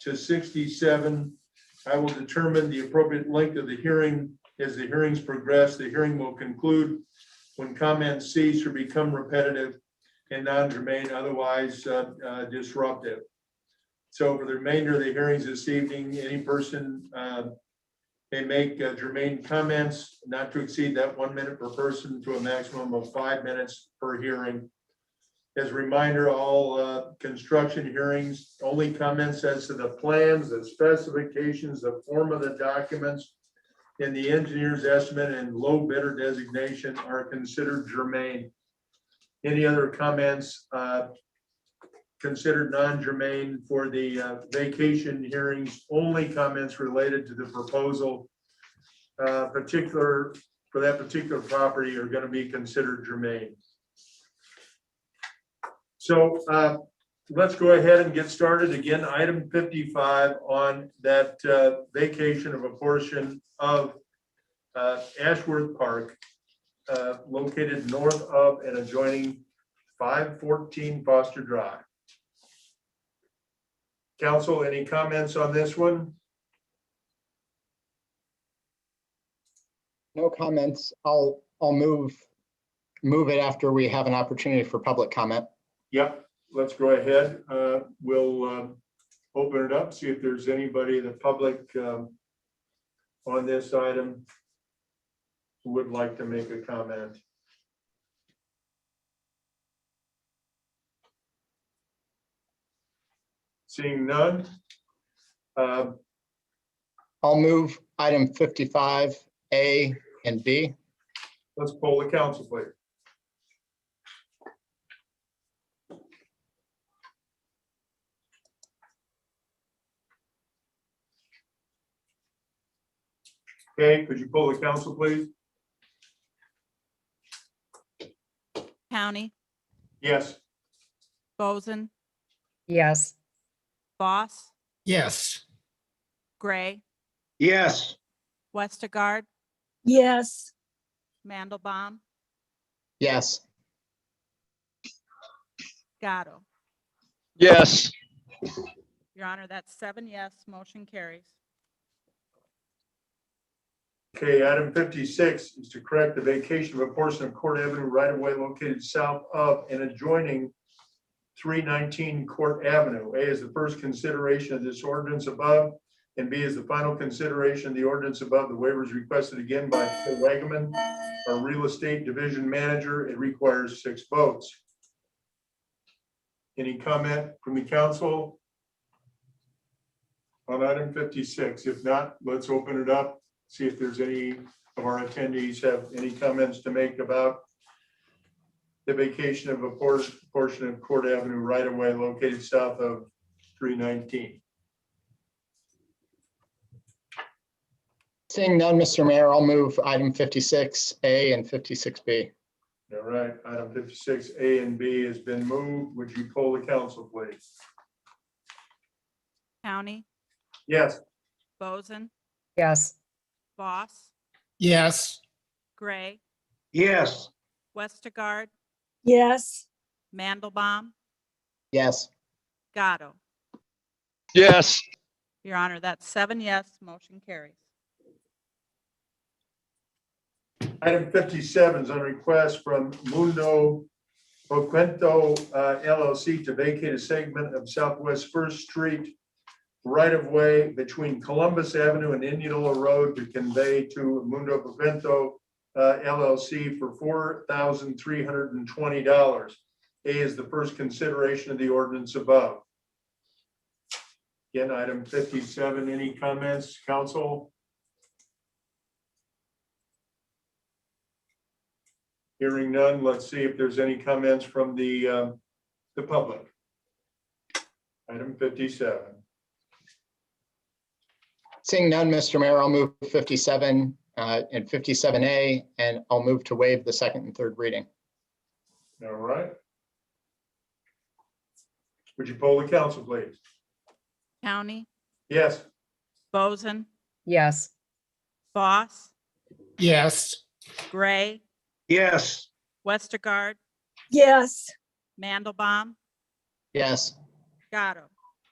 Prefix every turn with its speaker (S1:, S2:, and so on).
S1: to sixty-seven. I will determine the appropriate length of the hearing. As the hearings progress, the hearing will conclude when comments cease or become repetitive and non-germane, otherwise uh, uh, disruptive. So for the remainder of the hearings this evening, any person uh, may make uh, germane comments not to exceed that one minute per person to a maximum of five minutes per hearing. As a reminder, all uh, construction hearings, only comments as to the plans, the specifications, the form of the documents, and the engineer's estimate and low bidder designation are considered germane. Any other comments uh, considered non-germane for the uh, vacation hearings? Only comments related to the proposal uh, particular, for that particular property are going to be considered germane. So uh, let's go ahead and get started. Again, item 55 on that uh, vacation of a portion of uh, Ashworth Park uh, located north of and adjoining 514 Foster Drive. Council, any comments on this one?
S2: No comments. I'll, I'll move, move it after we have an opportunity for public comment.
S1: Yep, let's go ahead. Uh, We'll um, open it up, see if there's anybody in the public um, on this item who would like to make a comment. Seeing none. uh,
S2: I'll move item 55A and B.
S1: Let's poll the council, please. Okay, could you poll the council, please?
S3: County,
S1: Yes,
S3: Boson,
S4: Yes,
S3: Boss,
S5: Yes.
S3: Gray,
S6: Yes,
S3: Westergaard,
S7: Yes,
S3: Mandelbaum,
S2: Yes,
S3: Gatto.
S8: Yes,
S3: Your Honor, that's seven yes, motion carries.
S1: okay, item fifty-six is to correct the vacation of a portion of Court Avenue right of way located south of and adjoining three nineteen Court Avenue. A is the first consideration of this ordinance above, and B is the final consideration of the ordinance above. The waiver is requested again by Phil Wagaman, our real estate division manager. It requires six votes. Any comment from the council? On item fifty-six, if not, let's open it up see if there's any of our attendees have any comments to make about the vacation of a por- portion of Court Avenue right of way located south of three nineteen.
S2: seeing none, Mr. Mayor, I'll move item 56A and 56B.
S1: All right, item fifty-six A and B has been moved. Would you poll the council, please?
S3: County,
S1: Yes,
S3: Boson,
S4: yes,
S3: Boss,
S5: Yes.
S3: Gray,
S6: yes,
S3: Westergaard,
S7: yes,
S3: Mandelbaum,
S2: Yes,
S3: Gatto.
S8: yes,
S3: Your Honor, that's seven yes, motion carries.
S1: item fifty-seven is on request from Mundo Oquento uh, LLC to vacate a segment of Southwest First Street right of way between Columbus Avenue and Indianola Road to convey to Mundo Bevento uh, LLC for four thousand three hundred and twenty dollars. A is the first consideration of the ordinance above. Again, item fifty-seven, any comments, council? Hearing none, let's see if there's any comments from the, uh, the public. Item fifty-seven.
S2: seeing none, Mr. Mayor, I'll move 57 uh, and 57A, and I'll move to waive the second and third reading.
S1: All right. Would you poll the council, please?
S3: County,
S1: Yes,
S3: Boson,
S4: yes,
S3: Boss,
S5: Yes.
S3: Gray,
S6: yes,
S3: Westergaard,
S7: yes,
S3: Mandelbaum,
S2: Yes,
S3: Gatto.